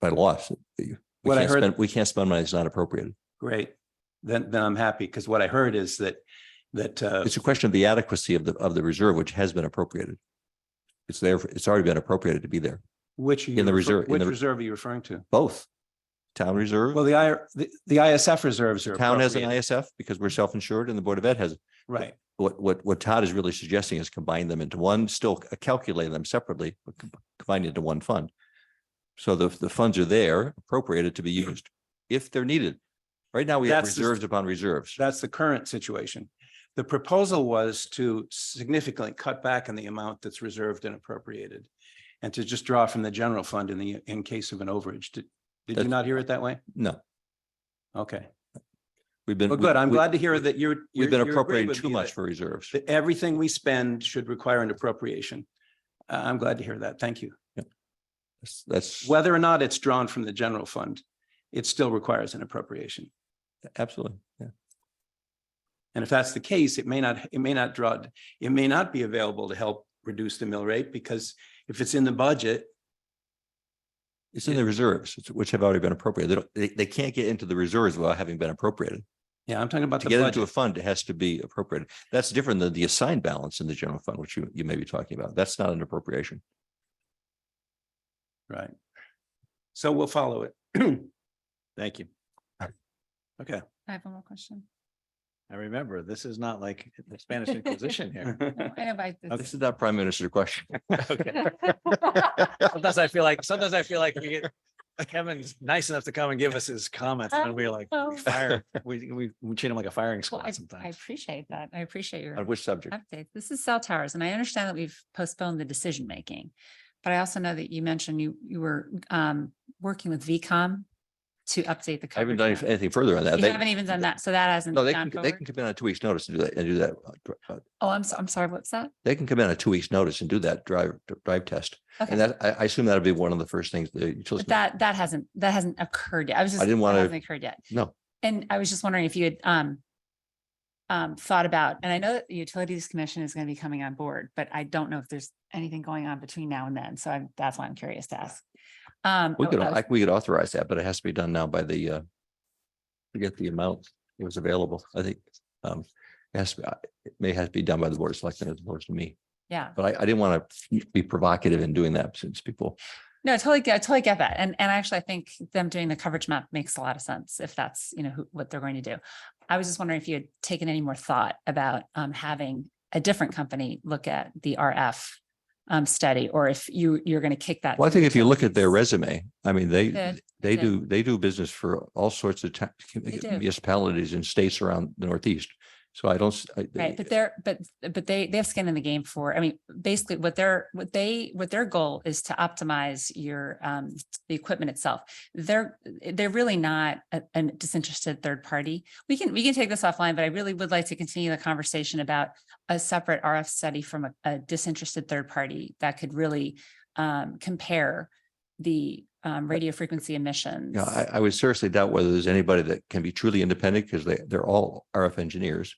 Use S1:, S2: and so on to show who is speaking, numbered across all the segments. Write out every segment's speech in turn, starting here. S1: by law. if you- We
S2: What I
S1: can't
S2: heard-
S1: spend, we can't spend money that's not appropriated.
S2: Great. Then, then I'm happy because what I heard is that, that, uh,
S1: It's a question of the adequacy of the, of the reserve, which has been appropriated. It's there, for- it's already been appropriated to be there,
S2: which. are you
S1: in the
S2: refer-
S1: reserve- in
S2: Which
S1: the-
S2: reserve are you referring to?
S1: both. Town reserve,
S2: Well, the I, the, the ISF reserves are.
S1: town has an
S2: appropriate.
S1: ISF because we're self-insured and the Board of Ed has.
S2: Right.
S1: What, what, what Todd is really suggesting is combine them into one, still calculate them separately, but com- combine into one fund. So the, the funds are there appropriated to be used if they're needed. Right now, we have
S2: That's the-
S1: reserves upon reserves.
S2: That's the current situation. The proposal was to significantly cut back on the amount that's reserved and appropriated and to just draw from the general fund in the, in case of an overage. Did, did you
S1: That's-
S2: not hear it that way?
S1: No,
S2: Okay.
S1: we've been.
S2: Well,
S1: we-
S2: good. I'm
S1: we-
S2: glad to hear that you're.
S1: We've
S2: you're-
S1: been
S2: you agree
S1: appropriating
S2: with
S1: too
S2: me
S1: much
S2: that-
S1: for reserves.
S2: That everything we spend should require an appropriation. Uh, I'm glad to hear that. Thank you.
S1: That's- That's
S2: Whether or not it's drawn from the general fund, it still requires an appropriation.
S1: absolutely, yeah.
S2: And if that's the case, it may not, it may not draw, it may not be available to help reduce the mill rate because if it's in the budget,
S1: It's in the reserves, it's- which have already been appropriated. They don't, they, they can't get into the reserves without having been appropriated.
S2: yeah, I'm talking about
S1: To
S2: the
S1: get into a
S2: budget.
S1: fund, it has to be appropriated. That's different than the assigned balance in the general fund, which you, you may be talking about. That's not an appropriation.
S2: Right. So we'll follow it.
S3: Thank you.
S2: Okay.
S4: I have one more question.
S3: I remember, this is not like the Spanish Inquisition here.
S4: No, I have, I, this-
S1: This is not prime minister question.
S3: Okay. Sometimes I feel like, sometimes I feel like we get, Kevin's nice enough to come and give us his comments and we're like, we fire, we, we, we treat him like a firing
S4: Oh. well, I-
S3: squad
S4: I
S3: sometimes.
S4: appreciate that. I appreciate your
S1: On which subject?
S4: update. This is cell towers and I understand that we've postponed the decision making. But I also know that you mentioned you, you were, um, working with VCOM to update the.
S1: I haven't
S4: coverage
S1: done
S4: map.
S1: anything further on that.
S4: You
S1: They-
S4: haven't even done that, so that hasn't.
S1: No, they
S4: gone
S1: can, they
S4: forward?
S1: can come in on two weeks' notice and do that, and do that. uh, dr- uh,
S4: Oh, I'm, so- I'm sorry, what's that?
S1: They can come in on two weeks' notice and do that drive, drive test.
S4: Okay.
S1: And that, I, I assume that'll be one of the first things the utilities.
S4: But that, that hasn't, that hasn't occurred yet. I was just.
S1: didn't
S4: that
S1: wanna-
S4: hasn't Occurred yet.
S1: No.
S4: And I was just wondering if you had, um, um, thought about, and I know that the Utilities Commission is going to be coming on board, but I don't know if there's anything going on between now and then. So I'm, that's why I'm curious to ask. Um,
S1: We
S4: I-
S1: could,
S4: I was-
S1: I- we could authorize that, but it has to be done now by the, uh, forget the amount that was available. I think, um, it has, to- it may have to be done by the board of selectmen as opposed to me.
S4: yeah,
S1: But I, I didn't want to be provocative in doing that since people,
S4: no, I totally, get- I totally get that. And, and actually I think them doing the coverage map makes a lot of sense if that's, you know, who, what they're going to do. I was just wondering if you had taken any more thought about, um, having a different company look at the RF, um, study, or if you, you're going to kick that.
S1: well, I
S4: to
S1: think if you look at their
S4: utilities.
S1: resume, I mean, they,
S4: Yeah,
S1: they
S4: yeah.
S1: do, they do business for all sorts of ta-
S4: do.
S1: municipalities and states around the Northeast. So I don't, s- I-
S4: Right, but they're, but, but they, they have skin in the game for, I mean, basically what their, what they, what their goal is to optimize your, um, the equipment itself. They're, they're really not a, a disinterested third party. We can, we can take this offline, but I really would like to continue the conversation about a separate RF study from a, a disinterested third party that could really, um, compare the, um, radio frequency emissions.
S1: Yeah, I, I would seriously doubt whether there's anybody that can be truly independent because they, they're all RF engineers.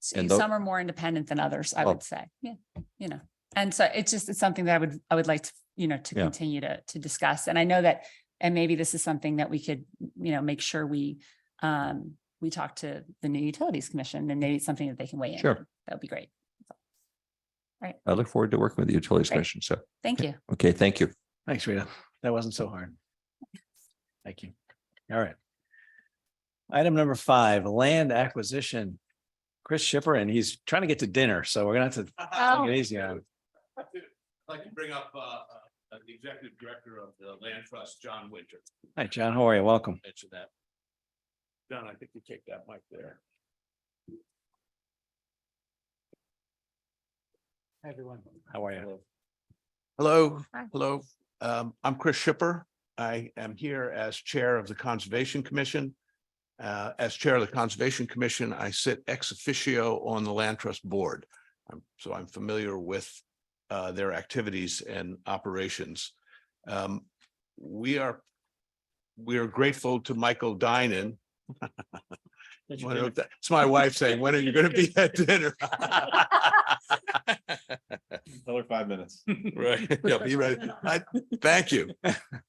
S4: So
S1: And tho-
S4: Some are more independent than others, I
S1: Well-
S4: would say. Yeah, you know, and so it's just, it's something that I would, I would like to, you know, to
S1: Yeah.
S4: continue to, to discuss. And I know that, and maybe this is something that we could, you know, make sure we, um, we talk to the new utilities commission and maybe it's something that they can weigh in.
S1: Sure.
S4: on. That'd be great.
S1: I look forward to working with the Utilities
S4: Great.
S1: Commission. So,
S4: Thank you.
S1: okay, thank you.
S3: Thanks, Rita. That wasn't so hard. Thank you. All right. Item number five, land acquisition. Chris Shipper, and he's trying to get to dinner, so we're gonna have to take
S4: Oh.
S3: it easy on him.
S5: I'd like to bring up uh, uh, the executive director of the land trust, John Winter.
S3: Hi, John, how are you? Welcome.
S5: Mention that. John, I think you take that mic there.
S3: Everyone. How are you?
S5: Hello,
S4: Hi.
S5: hello. Um, I'm Chris Shipper. I am here as Chair of the Conservation Commission. Uh, as Chair of the Conservation Commission, I sit ex officio on the Land Trust Board. Um, So I'm familiar with uh, their activities and operations. Um, we are, we are grateful to Michael Dinan. It's my wife saying, when are you going to be at dinner?
S6: Another five minutes.
S5: Right, yeah, be ready. I, thank you.